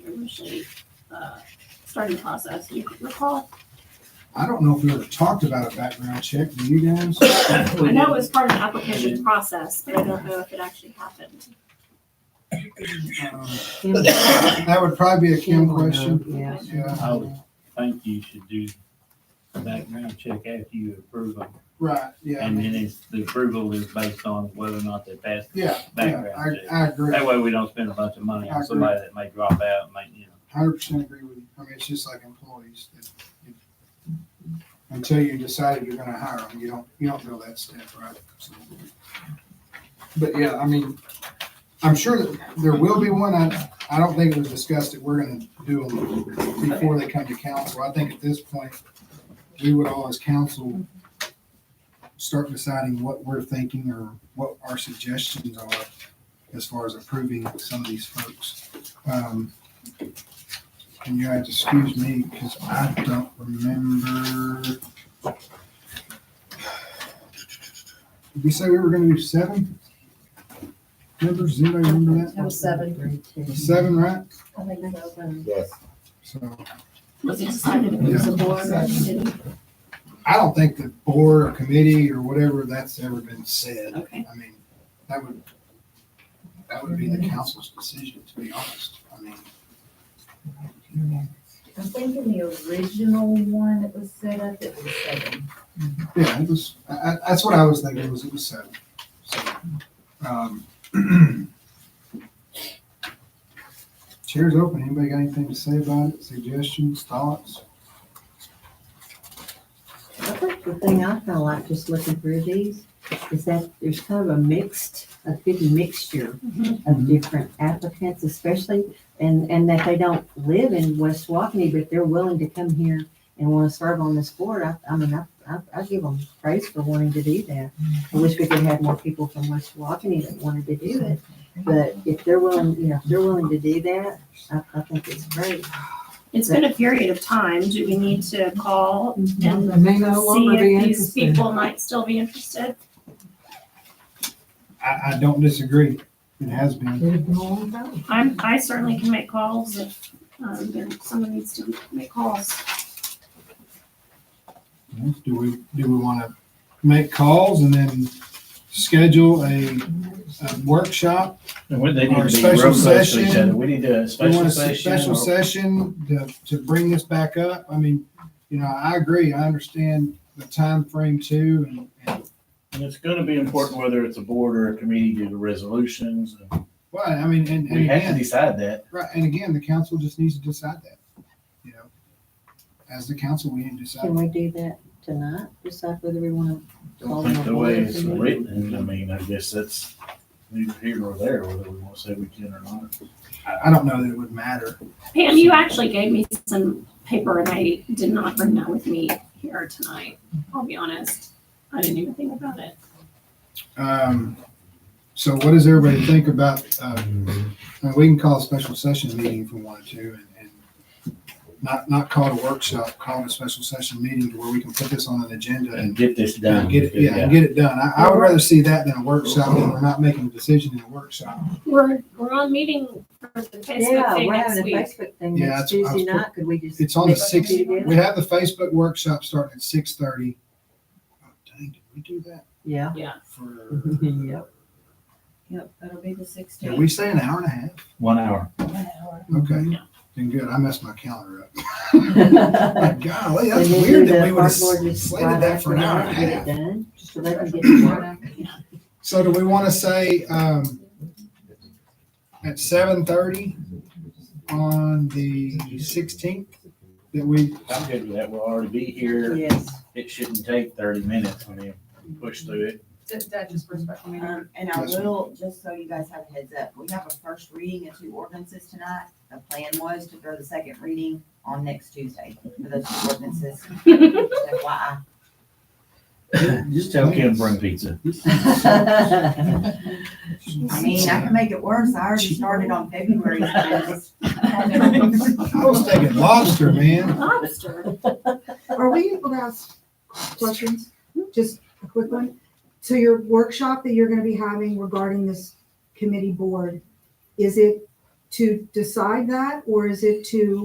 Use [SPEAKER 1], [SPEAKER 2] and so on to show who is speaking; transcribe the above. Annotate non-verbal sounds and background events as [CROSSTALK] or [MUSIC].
[SPEAKER 1] initially uh, starting the process. You recall?
[SPEAKER 2] I don't know if we ever talked about a background check, do you guys?
[SPEAKER 1] I know it was part of the application process, but I don't know if it actually happened.
[SPEAKER 2] Um, That would probably be a Kim question.
[SPEAKER 3] oh, Yeah.
[SPEAKER 2] Yeah,
[SPEAKER 4] I would think you should do a background check after you approve them.
[SPEAKER 2] right,
[SPEAKER 4] And
[SPEAKER 2] yeah,
[SPEAKER 4] then it's, the approval is based on whether or not they pass the
[SPEAKER 2] yeah, yeah,
[SPEAKER 4] background
[SPEAKER 2] I,
[SPEAKER 4] check.
[SPEAKER 2] I agree,
[SPEAKER 4] That way we don't spend a bunch of money
[SPEAKER 2] I
[SPEAKER 4] on
[SPEAKER 2] agree.
[SPEAKER 4] somebody that may drop out, and may, you know.
[SPEAKER 2] hundred percent agree with you, I mean, it's just like employees. that you- Until you decided you're gonna hire them, you don't, you don't go that step, right? So- But yeah, I mean, I'm sure that there will be one, I, I don't think it was discussed that we're gonna do them before they come to council, I think at this point, we would all as council start deciding what we're thinking or what our suggestions are as far as approving some of these folks. Um, And you guys excuse me, because I don't remember. Did we say we were gonna do seven? Members, does anybody remember that?
[SPEAKER 5] That was seven.
[SPEAKER 2] Seven, right?
[SPEAKER 5] I think so.
[SPEAKER 6] Yes.
[SPEAKER 2] So.
[SPEAKER 1] Was it decided it was a board or a committee?
[SPEAKER 2] I don't think the board or committee or whatever that's ever been said.
[SPEAKER 1] Okay.
[SPEAKER 2] I mean, that would, that would be the council's decision, to be honest. I mean.
[SPEAKER 5] I think in the original one that was set up, it was seven.
[SPEAKER 2] Yeah, it was, I, I- that's what I was thinking, was it was seven. So, um, [CLEARS THROAT] Chair's open. Anybody got anything to say about it? Suggestions, thoughts?
[SPEAKER 3] I think the thing I kind of like just looking through these is that there's kind of a mixed, a big mixture
[SPEAKER 1] Mhm.
[SPEAKER 3] of different applicants, especially, and, and that they don't live in West Walkeny, but they're willing to come here and want to serve on this board. I, I mean, I, I, I give them praise for wanting to do that. I wish we could have more people from West Walkeny that wanted to do it. But if they're willing, you know, if they're willing to do that, I, I think it's great.
[SPEAKER 1] It's been a period of time. Do we need to call and
[SPEAKER 5] They may
[SPEAKER 1] see if these people might still be interested?
[SPEAKER 2] I, I don't disagree. It has been.
[SPEAKER 1] I'm, I certainly can make calls if, um, there- someone needs to make calls.
[SPEAKER 2] Do we, do we want to make calls and then schedule a, a workshop?
[SPEAKER 7] Would they
[SPEAKER 2] Or
[SPEAKER 7] need to be
[SPEAKER 2] special
[SPEAKER 7] real close to each
[SPEAKER 2] session.
[SPEAKER 7] other? We need a
[SPEAKER 2] Do we want a
[SPEAKER 7] special
[SPEAKER 2] se-
[SPEAKER 7] session.
[SPEAKER 2] special
[SPEAKER 7] or-
[SPEAKER 2] session to, to bring this back up? I mean, you know, I agree. I understand the time frame too and, and,
[SPEAKER 7] And it's gonna be important whether it's a board or a committee to do the resolutions.
[SPEAKER 2] well, I mean, and, and
[SPEAKER 7] We have to
[SPEAKER 2] again,
[SPEAKER 7] decide that.
[SPEAKER 2] right, and again, the council just needs to decide that, you know? As the council, we need to decide.
[SPEAKER 3] Can we do that tonight? Decide whether we want to
[SPEAKER 7] I
[SPEAKER 3] call them
[SPEAKER 7] think
[SPEAKER 3] a
[SPEAKER 7] the way
[SPEAKER 3] board
[SPEAKER 7] it's
[SPEAKER 3] committee?
[SPEAKER 7] written, I mean, I guess that's neither here nor there, whether we want to say we can or not.
[SPEAKER 2] I, I don't know that it would matter.
[SPEAKER 1] Pam, you actually gave me some paper and I did not bring that with me here tonight. I'll be honest. I didn't even think about it.
[SPEAKER 2] Um, so what does everybody think about, uh, Uh, we can call a special session meeting if we wanted to and, and not, not call it a workshop, call it a special session meeting to where we can put this on an agenda and
[SPEAKER 7] And get this done.
[SPEAKER 2] get it, yeah, and get it done. I, I would rather see that than a workshop and we're not making a decision in a workshop.
[SPEAKER 1] We're, we're on meeting for the
[SPEAKER 3] Yeah,
[SPEAKER 1] Facebook thing
[SPEAKER 3] we're
[SPEAKER 1] next
[SPEAKER 3] having a
[SPEAKER 1] week.
[SPEAKER 3] Facebook thing
[SPEAKER 2] Yeah,
[SPEAKER 3] next
[SPEAKER 2] that's- I was
[SPEAKER 3] Tuesday night, could we just?
[SPEAKER 2] It's on the
[SPEAKER 3] mix it
[SPEAKER 2] sixth,
[SPEAKER 3] together?
[SPEAKER 2] we have the Facebook workshop starting at six thirty. Oh, dang, did we do that
[SPEAKER 3] Yeah.
[SPEAKER 2] for,
[SPEAKER 3] Yep.
[SPEAKER 5] Yep, that'll be the
[SPEAKER 2] did
[SPEAKER 5] sixteenth.
[SPEAKER 2] we say an hour and a half?
[SPEAKER 7] One hour.
[SPEAKER 3] Mm-hmm. [LAUGHS]
[SPEAKER 2] Okay,
[SPEAKER 1] Yeah.
[SPEAKER 2] then good, I messed my calendar up.
[SPEAKER 3] Uh, And
[SPEAKER 2] My golly, that's
[SPEAKER 3] then
[SPEAKER 2] weird
[SPEAKER 3] do
[SPEAKER 2] that
[SPEAKER 3] the
[SPEAKER 2] we would have
[SPEAKER 3] park board just right
[SPEAKER 2] slated that for an
[SPEAKER 3] after
[SPEAKER 2] hour and
[SPEAKER 3] that,
[SPEAKER 2] a
[SPEAKER 3] get it
[SPEAKER 2] half.
[SPEAKER 3] done, So they can get to work.
[SPEAKER 2] So do we want to say, um, at seven thirty on the sixteenth? That we,
[SPEAKER 7] I'm good with that. We'll already be here.
[SPEAKER 3] Yes.
[SPEAKER 7] It shouldn't take thirty minutes. I mean, push through it.
[SPEAKER 8] That just for
[SPEAKER 3] [LAUGHS]
[SPEAKER 8] [LAUGHS] special meeting.
[SPEAKER 5] Um, and I will, just so you guys have a heads up, we have a first reading of two ordinances tonight. The plan was to throw the second reading on next Tuesday for those two [LAUGHS] ordinances. FYI.
[SPEAKER 7] Just tell Kim bring pizza.
[SPEAKER 5] I mean, I can make it worse. I already started on
[SPEAKER 3] [LAUGHS]
[SPEAKER 5] February.
[SPEAKER 2] I was thinking lobster, man.
[SPEAKER 1] Lobster.
[SPEAKER 8] Are we able to ask questions? Just a quick one. So your workshop that you're gonna be having regarding this committee board, is it to decide that, or is it to